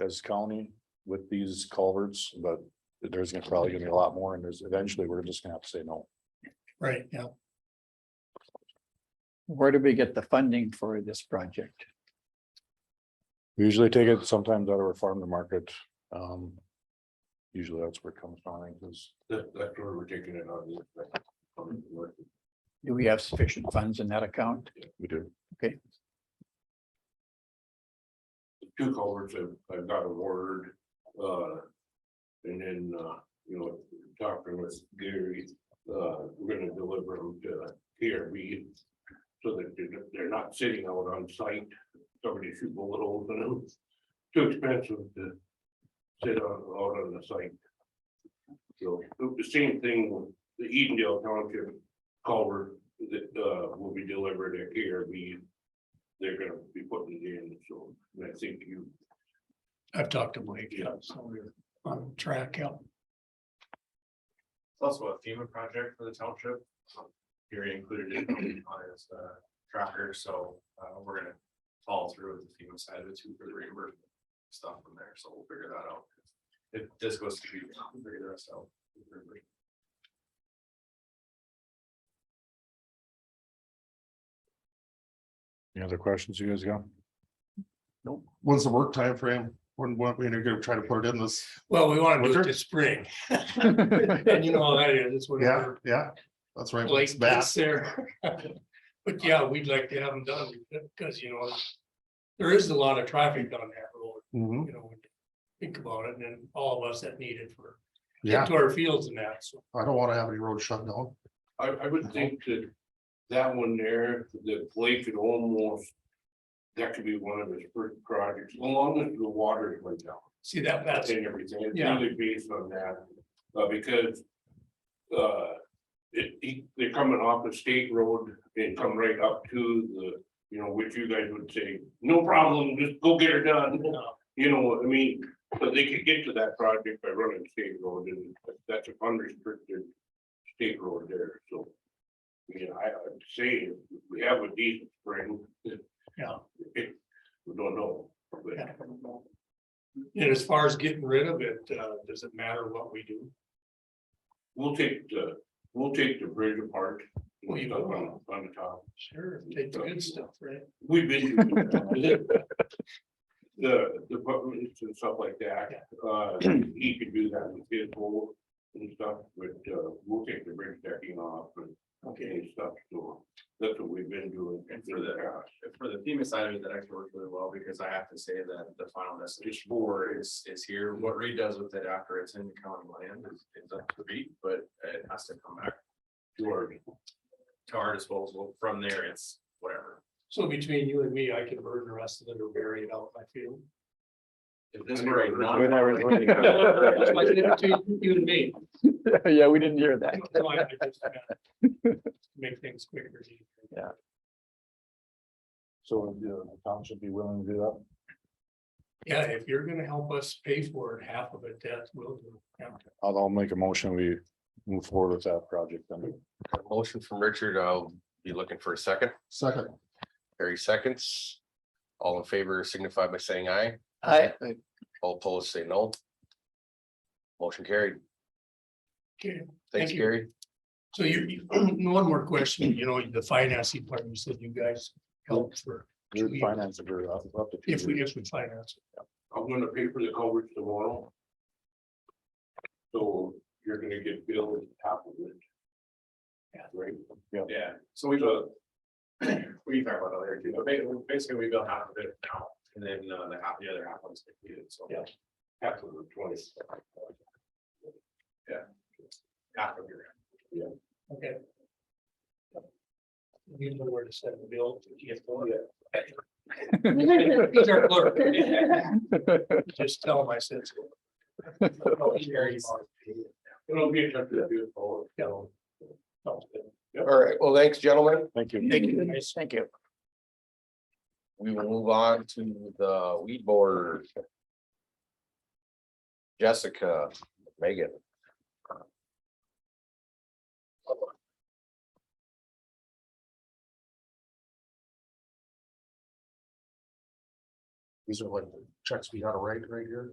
as county with these culverts, but there's gonna probably gonna be a lot more and there's eventually we're just gonna have to say no. Right, yeah. Where do we get the funding for this project? We usually take it sometimes out of our farm to market. Um. Usually that's where it comes from, I think, is. That, that's where we're taking it on. Do we have sufficient funds in that account? We do. Two culverts have, I've got awarded, uh. And then, uh, you know, talking with Gary, uh, we're gonna deliver them to PRB. So that they're, they're not sitting out on site, somebody shoot bullet holes in them, too expensive to. Sit on, out on the site. So, the same thing with the Edendale Township culvert that, uh, will be delivered at PRB they're gonna be putting it in, so and I think you, I've talked to Blake, yeah, so we're on track, yeah. It's also a FEMA project for the township. Here included it on his uh, tracker, so uh, we're gonna follow through with the FEMA side of it too for the reimbursement stuff from there, so we'll figure that out. If this goes to, be, we'll figure the rest out. Any other questions you guys got? When's the work time frame? When, when we're gonna try to put it in this? Well, we want to do it Winter? this spring. And you know how that is, it's Yeah, whatever yeah, that's right. Blake It's bad. thinks there. But yeah, we'd like to have them done because, you know, there is a lot of traffic on that road, Mhm, you know, when you think about it, and then all of us that need it for Yeah, to our fields and that, so. I don't wanna have any road shut down. I, I would think that that one there, the Blake could almost. That could be one of his first projects, along with the water is way down See that, that's, and everything, it's Yeah. really based on that, uh, because. Uh, it, he- they're coming off the state road and come right up to the, you know, which you guys would say, no problem, just go get her done. You know, what I mean, but they could get to that project by running state road and that's an unrestricted state road there, so. I mean, I, I'd say if we have a decent spring. Yeah. It, we don't know, but Yeah. and as far as getting rid of it, uh, does it matter what we do? we'll take the, we'll take the bridge apart. Well, you Up will. On on the top. Sure, take the good stuff, right? We've been. The, the buttons and stuff like that, uh, he could do that with his bowl and stuff, but, uh, we'll take the bridge decking off and. And stuff, so that's what we've been doing. And for the- For the FEMA side of it, that actually worked really well because I have to say that the final destination board is, is here. What Reed does with it after it's in the county land is is up to Reed, but it has to come back George, to our disposal. From there, it's whatever. So between you and me, I can burn the rest of it or bury it out in my field. If this were a non. We never- That's my thing Between you and me. Yeah, we didn't hear that. No, I- I just, yeah. Make things quicker. So the town should be willing to do that. Yeah, if you're gonna help us pay for it, half of it, that will do. Yeah. I'll, I'll make a motion. We move forward with that project. Then Motion from Richard, I'll be looking for a second, Second, thirty seconds. All in favor signify by saying aye, I, all opposed say no. Motion carried. Okay, Thanks, Thank you. Gary. so you, you- one more question, you know, the financing part, you said you guys helped for, we would finance it for up up to. two if we, years. if we finance. it. I'm gonna pay for the coverage tomorrow. So you're gonna get billed half of it. Yeah. Right? Yeah, so we go. We can talk about that later too, but ba- basically we built half of it now, and then uh, the half, the other half was completed, so. Yeah. Half of the twenty. Half of your. Okay. You know where to send the bill. He's our clerk. Just tell him I said so. Oh, It'll be a touch of you forward. Yeah. Sounds good. All right, well, thanks, gentlemen. Thank you. thank you, guys. thank you. We will move on to the weed board. Jessica, Megan. These are like the checks we gotta write right here?